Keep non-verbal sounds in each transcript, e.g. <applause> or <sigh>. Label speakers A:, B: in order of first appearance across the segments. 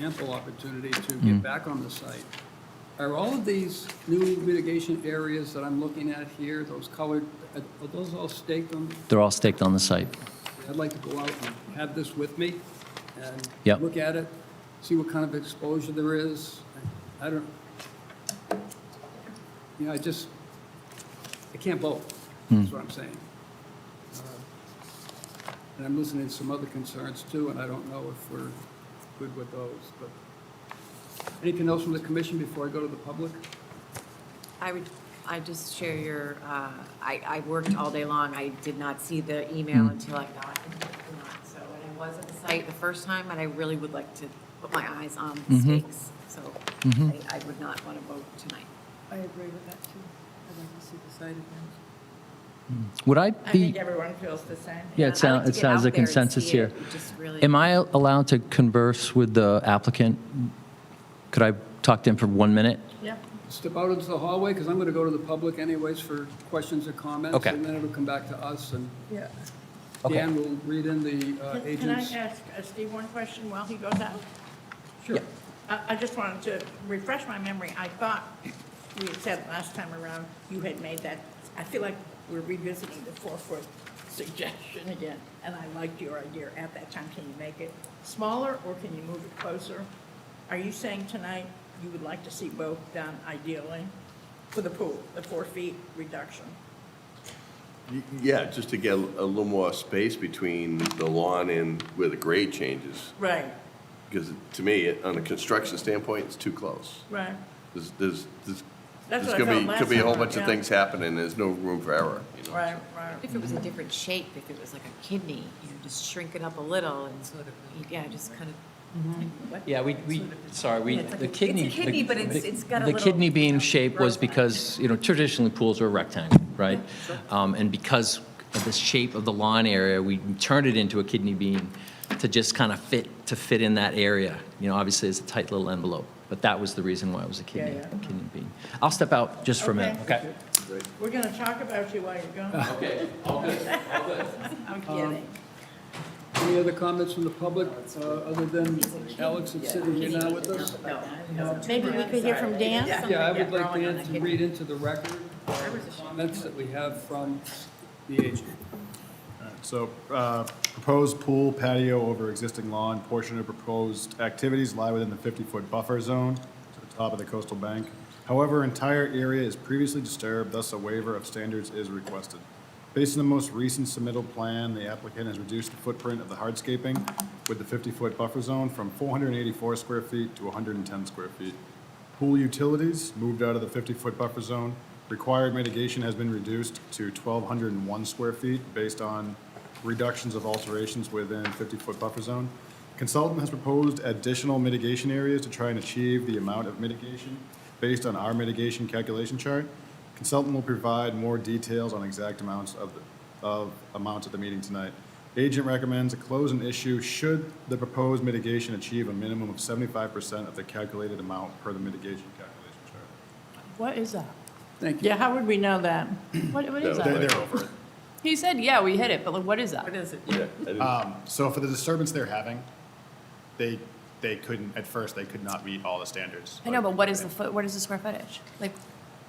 A: ample opportunity to get back on the site. Are all of these new mitigation areas that I'm looking at here, those colored, are are those all staked on?
B: They're all staked on the site.
A: I'd like to go out and have this with me and
B: Yep.
A: look at it, see what kind of exposure there is. I don't, you know, I just, I can't vote,
B: Hmm.
A: is what I'm saying. Uh, And I'm listening to some other concerns too, and I don't know if we're good with those, but. Anything else from the commission before I go to the public?
C: I would, I just share your, uh, I, I worked all day long. I did not see the
B: Hmm.
C: email until I got it. So, and I was at the site the first time, and I really would like to put my eyes on the
B: Mm-hmm.
C: stakes. So I, I would not want to vote tonight.
D: I agree with that too. I'd like to see the site again.
B: Would I
E: I
B: be,
E: think everyone feels the same.
B: yeah,
C: I'd
B: it sounds,
C: like
B: it
C: to get
B: sounds
C: out
B: a
C: there and
B: consensus
C: see
B: here.
C: it. It Just really.
B: Am I allowed to converse with the applicant? Could I talk to him for one minute?
E: Yep.
A: Step out into the hallway, because I'm going to go to the public anyways for questions or comments.
B: Okay.
A: And then it'll come back to us and
E: Yeah.
B: Okay.
A: Dan will read in the uh,
E: Can can I
A: agents.
E: ask uh, Steve one question while he goes out?
A: Sure.
E: I, I just wanted to refresh my memory. I thought we had said last time around, you had made that, I feel like we're revisiting the four-foot suggestion again, and I liked your idea at that time. Can you make it smaller, or can you move it closer? Are you saying tonight you would like to see both done ideally for the pool, the four feet reduction?
F: Y- Yeah, just to get a little more space between the lawn and where the grade changes.
E: Right,
F: Because to me, it- on a construction standpoint, it's too close.
E: right.
F: There's, there's, there's
E: That's
F: there's
E: what I
F: gonna be,
E: felt
F: could be a
E: last
F: whole
E: time,
F: bunch of
E: yeah.
F: things happening, there's no room for error, you know?
E: Right, right.
C: If it was a different shape, if it was like a kidney, you know, just shrink it up a little and sort of, yeah, just kind of.
B: Yeah, we, we, sorry, we,
C: Yeah, it's like
B: the
C: a- it's a
B: kidney. the-
C: kidney, but it's-
B: the-
C: it's got a
B: The
C: little,
B: kidney
C: you
B: bean
C: know,
B: shape was
C: growth on it.
B: because, you know, traditionally pools were rectangle, right? Um, And because of the shape of the lawn area, we turned it into a kidney bean to just kind of fit, to fit in that area. You know, obviously, it's a tight little envelope, but that was the reason why it was a kidney,
E: yeah.
B: kidney bean. I'll step out just for a minute,
E: Okay.
B: okay?
E: We're gonna talk about you while you're gone.
B: <laughs>
E: Um,
B: Okay, all good, all good.
E: <laughs> I'm kidding.
A: Any other comments from the public, uh, other than Alex that's sitting here now with us?
E: Maybe we could hear from Dan?
A: Yeah, I would like Dan to read into the record the comments that we have from the agent.
G: So uh, proposed pool patio over existing lawn, portion of proposed activities lie within the 50-foot buffer zone to the top of the coastal bank. However, entire area is previously disturbed, thus a waiver of standards is requested. Based on the most recent submittal plan, the applicant has reduced the footprint of the hardscaping with the 50-foot buffer zone from 484 square feet to 110 square feet. Pool utilities moved out of the 50-foot buffer zone. Required mitigation has been reduced to 1,201 square feet based on reductions of alterations within 50-foot buffer zone. Consultant has proposed additional mitigation areas to try and achieve the amount of mitigation based on our mitigation calculation chart. Consultant will provide more details on exact amounts of, the- of amounts at the meeting tonight. Agent recommends a close an issue should the proposed mitigation achieve a minimum of seventy-five percent of the calculated amount per the mitigation calculation chart.
H: What is that?
A: Thank you.
E: Yeah, how would we know that?
H: What, what is
F: No,
H: that?
F: like-
G: They're over it.
H: He said, yeah, we hit it, but like, what is that?
E: is it?
F: Yeah, I didn't-
G: So for the disturbance they're having, they, they couldn't, at first, they could not meet all the standards.
H: I know, but what is the foot, what is the square footage? Like,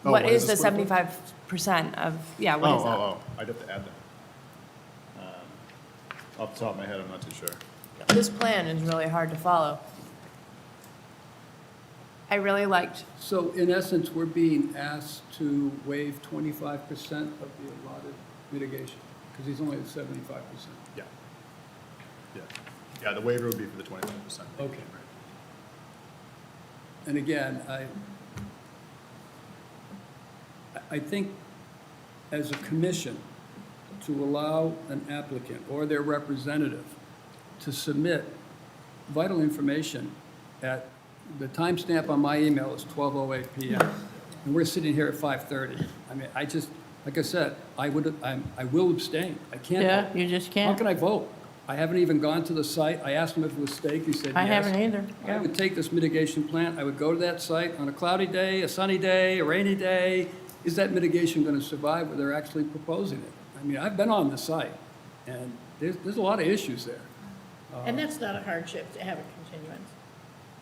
G: Oh,
H: what
G: what
H: is
G: is
H: the
G: the square foot?
H: seventy-five percent of, yeah,
G: Oh,
H: what is that?
G: oh, oh, I'd have to add that. Um, Off the top of my head, I'm not too sure.
H: This plan is really hard to follow. I really liked,
A: So in essence, we're being asked to waive 25% of the allotted mitigation, because he's only at 75%.
G: Yeah. Yeah. Yeah, the waiver would be for the twenty-five percent.
A: Okay. And again, I, I- I think as a commission, to allow an applicant or their representative to submit vital information at, the timestamp on my email is 12:08 PM, and we're sitting here at 5:30. I mean, I just, like I said, I would, I'm, I will abstain. I can't.
E: Yeah,
A: vote.
E: you just
A: How
E: can't.
A: can I vote? I haven't even gone to the site. I asked him if it was staked. He said yes.
E: I haven't either,
A: I
E: yeah.
A: would take this mitigation plan, I would go to that site on a cloudy day, a sunny day, a rainy day. Is that mitigation going to survive where they're actually proposing it? I mean, I've been on the site, and there's, there's a lot of issues there.
E: And that's not a hardship to have a continuance.